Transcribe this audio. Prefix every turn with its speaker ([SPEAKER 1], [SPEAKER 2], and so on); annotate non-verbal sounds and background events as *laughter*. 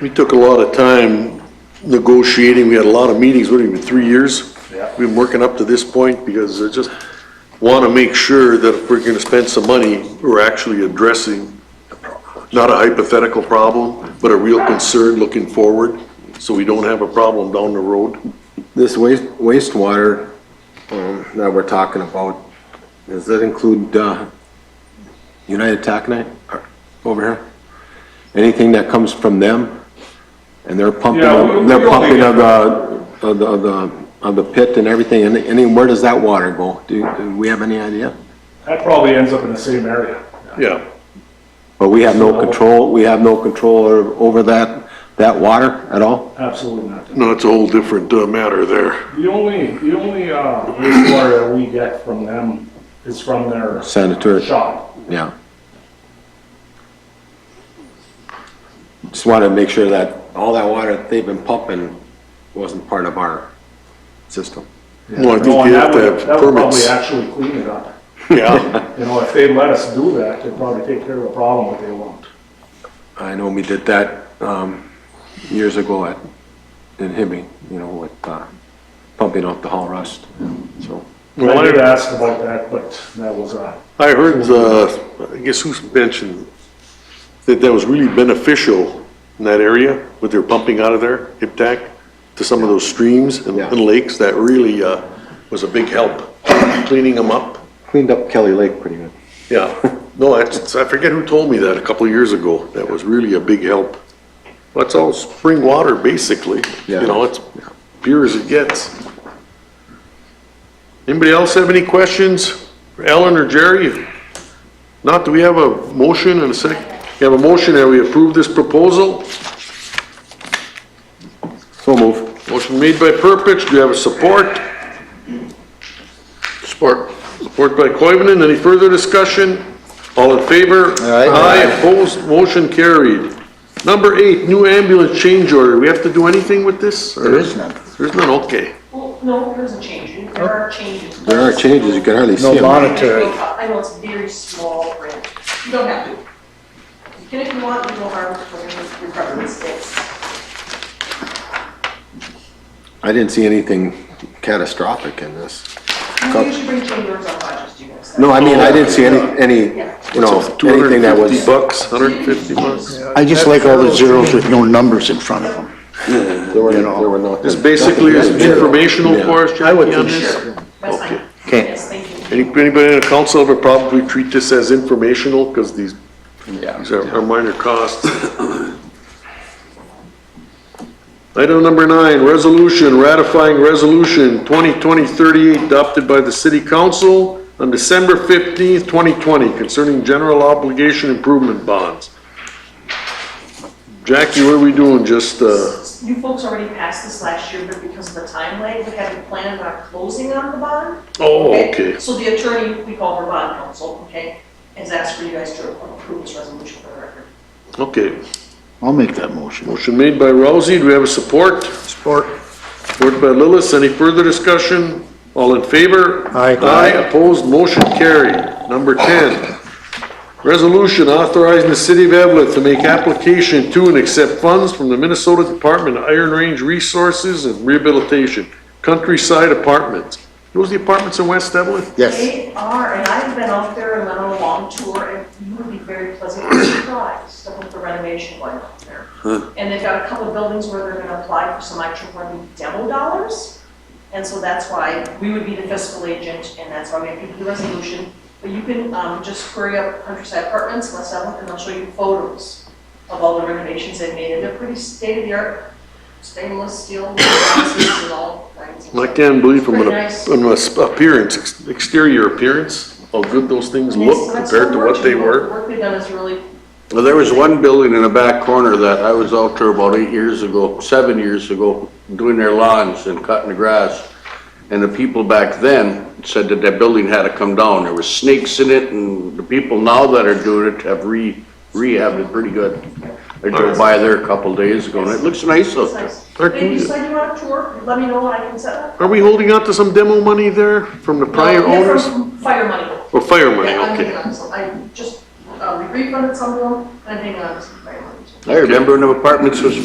[SPEAKER 1] We took a lot of time negotiating, we had a lot of meetings, what, even three years?
[SPEAKER 2] Yeah.
[SPEAKER 1] We've been working up to this point because I just want to make sure that if we're going to spend some money, we're actually addressing not a hypothetical problem, but a real concern looking forward, so we don't have a problem down the road.
[SPEAKER 3] This waste wastewater um, that we're talking about, does that include uh, United Taconite or- over here? Anything that comes from them? And they're pumping,
[SPEAKER 2] Yeah, we-
[SPEAKER 3] of- they're
[SPEAKER 2] we only
[SPEAKER 3] pumping
[SPEAKER 2] get-
[SPEAKER 3] of the, of the- of the, of the pit and everything, and any, where does that water go? Do do we have any idea?
[SPEAKER 2] That probably ends up in the same area.
[SPEAKER 1] Yeah.
[SPEAKER 3] But we have no control, we have no control o- over that, that water at all?
[SPEAKER 2] Absolutely not.
[SPEAKER 1] No, it's a whole different uh, matter there.
[SPEAKER 2] The only, the only, uh, wastewater that we get from them is from their
[SPEAKER 3] Sanitary,
[SPEAKER 2] shop.
[SPEAKER 3] yeah. Just wanted to make sure that all that water that they've been pumping wasn't part of our system.
[SPEAKER 1] Well, I
[SPEAKER 2] No,
[SPEAKER 1] think
[SPEAKER 2] and
[SPEAKER 1] you
[SPEAKER 2] that
[SPEAKER 1] have to
[SPEAKER 2] would,
[SPEAKER 1] have
[SPEAKER 2] that would probably
[SPEAKER 1] permits.
[SPEAKER 2] actually clean it up. *laughs*
[SPEAKER 1] Yeah,
[SPEAKER 2] You know, if they let us do that, they'd probably take care of the problem, but they won't.
[SPEAKER 3] I know we did that, um, years ago at, in Hibbing, you know, with, uh, pumping off the hall rust, so.
[SPEAKER 2] I did ask about that, but that was, uh,
[SPEAKER 1] I heard, uh, I guess who's mentioned, that that was really beneficial in that area with their pumping out of there, IPTAC, to some of those streams and
[SPEAKER 3] Yeah.
[SPEAKER 1] and lakes, that really uh, was a big help, cleaning them up.
[SPEAKER 3] Cleaned up Kelly Lake pretty good.
[SPEAKER 1] Yeah, no, that's- I forget who told me that a couple of years ago, that was really a big help. That's all spring water, basically, you
[SPEAKER 3] Yeah.
[SPEAKER 1] know, it's pure as it gets. Anybody else have any questions for Ellen or Jerry? Not, do we have a motion and a sec? You have a motion that we approve this proposal?
[SPEAKER 3] So move.
[SPEAKER 1] Motion made by Purpich, do you have a support? Support. Support by Coivinon, any further discussion? All in favor?
[SPEAKER 3] Aye.
[SPEAKER 1] opposed, motion carried. Number eight, new ambulance change order, we have to do anything with this? There is none. There's none, okay.
[SPEAKER 4] Well, no, there isn't change. There are changes.
[SPEAKER 3] There are changes, you can hardly see
[SPEAKER 5] No
[SPEAKER 3] them.
[SPEAKER 5] monetary.
[SPEAKER 4] I know it's very small print. You don't have to. You can if you want, you know, harm, but your preference is.
[SPEAKER 3] I didn't see anything catastrophic in this.
[SPEAKER 4] You usually bring change orders on budgets, you guys.
[SPEAKER 3] No, I mean, I didn't see any, any, you know, anything that
[SPEAKER 1] 250
[SPEAKER 3] was,
[SPEAKER 1] bucks, 150 bucks.
[SPEAKER 5] I just like all the zeros with no numbers in front of them.
[SPEAKER 3] there were, there were no.
[SPEAKER 1] This basically is informational
[SPEAKER 3] Yeah.
[SPEAKER 1] for us,
[SPEAKER 5] I would
[SPEAKER 1] Jackie, on
[SPEAKER 5] think
[SPEAKER 1] this?
[SPEAKER 5] so.
[SPEAKER 4] That's
[SPEAKER 1] Okay.
[SPEAKER 4] fine.
[SPEAKER 5] Okay.
[SPEAKER 4] Yes, thank you.
[SPEAKER 1] Any- Anybody in the council ever probably treat this as informational, because these, these are are minor costs. Item number nine, resolution ratifying resolution 2020-38 adopted by the city council on December 15th, 2020 concerning general obligation improvement bonds. Jackie, what are we doing, just, uh,
[SPEAKER 4] You folks already passed this last year, but because of the time lag, we haven't planned on closing on the bond.
[SPEAKER 1] oh, okay,
[SPEAKER 4] So the attorney, we call her bond counsel, okay, has asked for you guys to approve this resolution for the record.
[SPEAKER 1] okay.
[SPEAKER 5] I'll make that motion.
[SPEAKER 1] Motion made by Rousey, do we have a support?
[SPEAKER 5] Support.
[SPEAKER 1] Support by Lillis, any further discussion? All in favor?
[SPEAKER 5] Aye.
[SPEAKER 1] Aye, opposed, motion carried. Number 10, resolution authorizing the city of Evlith to make application to and accept funds from the Minnesota Department of Iron Range Resources and Rehabilitation, Countryside Apartments. Those the apartments in West Evlith?
[SPEAKER 5] Yes.
[SPEAKER 4] They are, and I've been out there and went on a long tour, and you would be very pleasantly surprised at what the renovation going on there. And they've got a couple of buildings where they're gonna apply for some extra money demo dollars, and so that's why we would be the fiscal agent, and that's why we have to do the resolution. But you can, um, just query up Countryside Apartments, West Seventh, and they'll show you photos of all the renovations they've made, and they're pretty state-of-the-art, stainless steel, *coughs* glasses and all kinds of
[SPEAKER 1] I can't believe from an
[SPEAKER 4] Pretty nice.
[SPEAKER 1] from an appearance, ex- exterior appearance, how good those things look compared to what they
[SPEAKER 4] The
[SPEAKER 1] were.
[SPEAKER 4] work they've done is really,
[SPEAKER 6] Well, there was one building in the back corner that I was out there about eight years ago, seven years ago, doing their lawns and cutting the grass. And the people back then said that that building had to come down. There were snakes in it and the people now that are doing it have re, rehabbed it pretty good. I drove by there a couple days ago and it looks nice out
[SPEAKER 4] it's
[SPEAKER 6] there.
[SPEAKER 4] nice.
[SPEAKER 1] Thank
[SPEAKER 4] If you
[SPEAKER 1] you.
[SPEAKER 4] decide you want a tour, let me know and I can set up.
[SPEAKER 1] Are we holding out to some demo money there from the prior
[SPEAKER 4] No, they're
[SPEAKER 1] owners?
[SPEAKER 4] from Fire money.
[SPEAKER 1] Or fire money,
[SPEAKER 4] Yeah, I'm
[SPEAKER 1] okay.
[SPEAKER 4] hanging on to some- I just, uh, we refunded some of them, and I'm hanging on to some fire money.
[SPEAKER 6] I remember when the apartments was